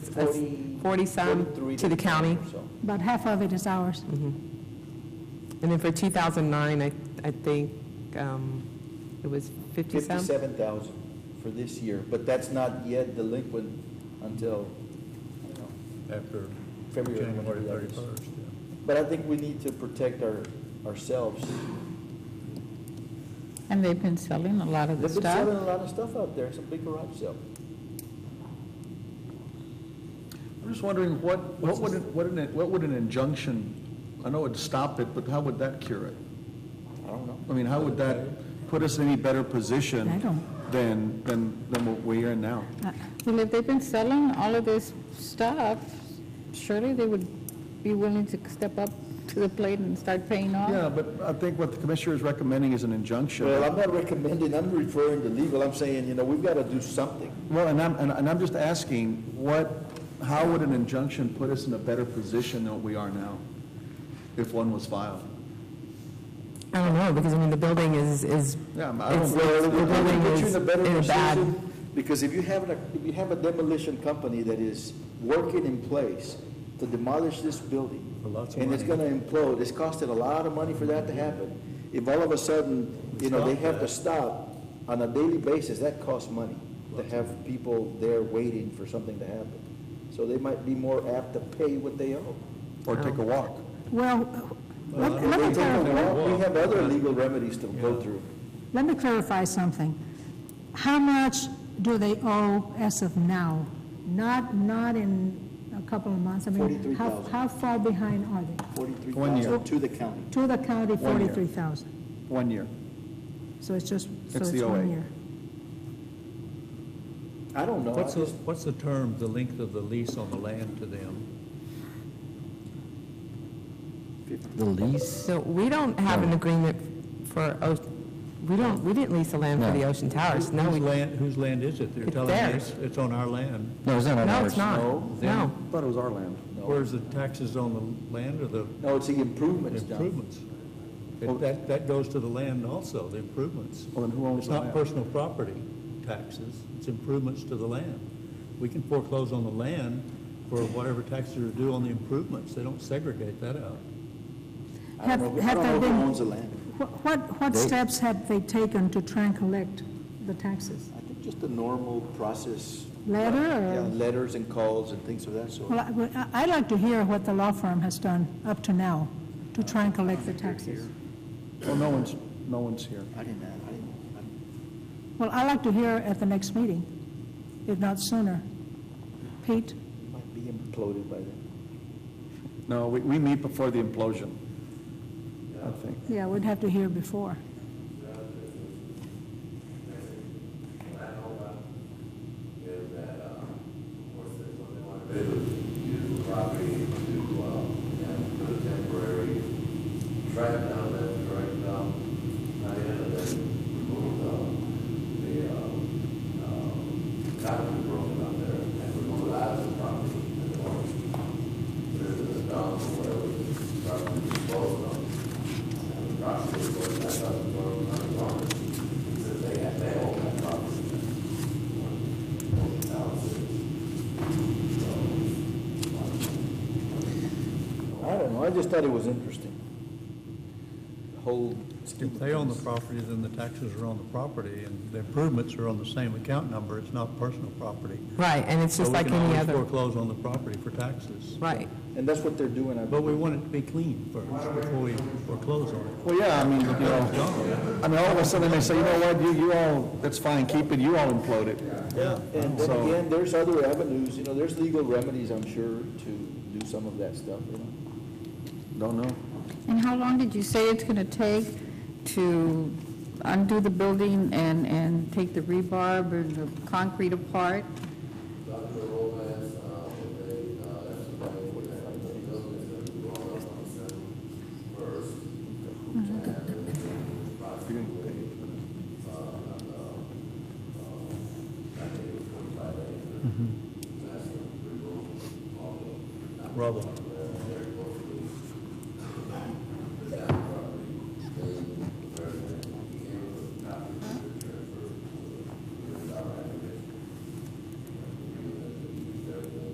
40. 40-some 43 to the county. or so. About half of it is ours. Mm-hmm. And then for 2009, I, I think um, it was 50-some? 57,000 for this year, but that's not yet delinquent until, you know, after February, whenever January that is. 31st. But I think we need to protect our, ourselves. And they've been selling a lot of the They've been stuff. selling a lot of stuff out there, it's a big garage sale. I'm just wondering, what, what would, an- what an, what would an injunction, I know it'd stop it, but how would that cure it? I don't know. I mean, how would that put us in any better position I don't- Uh, than, than, than what we are now? Well, if they've been selling all of this stuff, surely they would be willing to step up to the plate and start paying off. Yeah, but I think what the commissioner is recommending is an injunction. Well, I'm not recommending, I'm referring to legal, I'm saying, you know, we've got to do something. Well, and I'm, and and I'm just asking, what, how would an injunction put us in a better position than what we are now, if one was filed? I don't know, because I mean, the building is, is, Yeah, I'm- I it's- don't- the Well, it building would put you is in a better in a bad, position, because if you have a, if you have a demolition company that is working in place to demolish this building, For lots of and it's gonna implode, it's costed a lot of money for that to happen. If all of a sudden, you know, they have to stop on a daily basis, that costs money to have people there waiting for something to happen. So they might be more apt to pay what they owe. Or take a walk? Well, Uh, let let They me take a clarify. walk. We have other legal remedies to go through. Let me clarify something. How much do they owe as of now? Not, not in a couple of months. I mean, how, 43,000. how far behind are they? Forty-three One year. thousand to the county. To the county, One year. forty-three thousand. One year. So it's just, so It's it's the OA. one year. I don't know. I What's the, just- what's the term, the length of the lease on the land to them? The lease? so we don't have an agreement for, O- we don't, we didn't lease the land for the Ocean Towers, no, Whose we, no, land, whose land is it? They're It's telling theirs. us it's on our land. No, it's not on ours. it's not, no. I thought it was our land. Where's the taxes on the land or the No, it's the improvements done. improvements? That- That, that goes to the land also, the improvements. Well, then who owns It's the not land? personal property taxes, it's improvements to the land. We can foreclose on the land for whatever taxes are due on the improvements. They don't segregate that out. I Have, don't know, I have don't know they who been, owns the land. what- what, what steps have they taken to try and collect the taxes? I think just the normal process. Uh, Letter or- Yeah, letters and calls and things of that sort. Well, I- well, I- I'd like to hear what the law firm has done up to now to try and collect the taxes. Well, no one's, no one's here. I didn't, I didn't, I- Well, I'd like to hear at the next meeting, if not sooner. Pete? it might be imploded by then. No, we, we meet before the implosion, I think. Yeah, we'd have to hear before. is that, uh, of course, there's something like to use the property to, uh, you know, put a temporary track down that track down, not in it, that remove the, the, uh, uh, concrete broken up there and remove it out of the property and or put it in the dump or whatever, start to dispose of. um, And the property is going back up, going on the water, because they have, they own that property. I don't know, I just thought it was interesting. The Whole. If they own the property, then the taxes are on the property, and the improvements are on the same account number, it's not personal property. right, and it's just like any So other, we can always foreclose on the property for taxes, right. And that's what they're doing, I but believe. we want it to be clean first before we foreclose on it. Well, yeah, I mean, you know, I mean, all of a sudden they may say, you know what, you, you all, that's fine, keep it, you all implode it. Yeah, and then So- again, there's other avenues, you know, there's legal remedies, I'm sure, to do some of that stuff, you know. Don't know. And how long did you say it's going to take to undo the building and, and take the rebarb and the concrete apart? Dr. Lopez, uh, with a, uh, estimate for that, like, the buildings that we brought up on seven first. And then the possibly, uh, uh, uh, I think it was forty-five acres. That's the removal of all the. Rubble.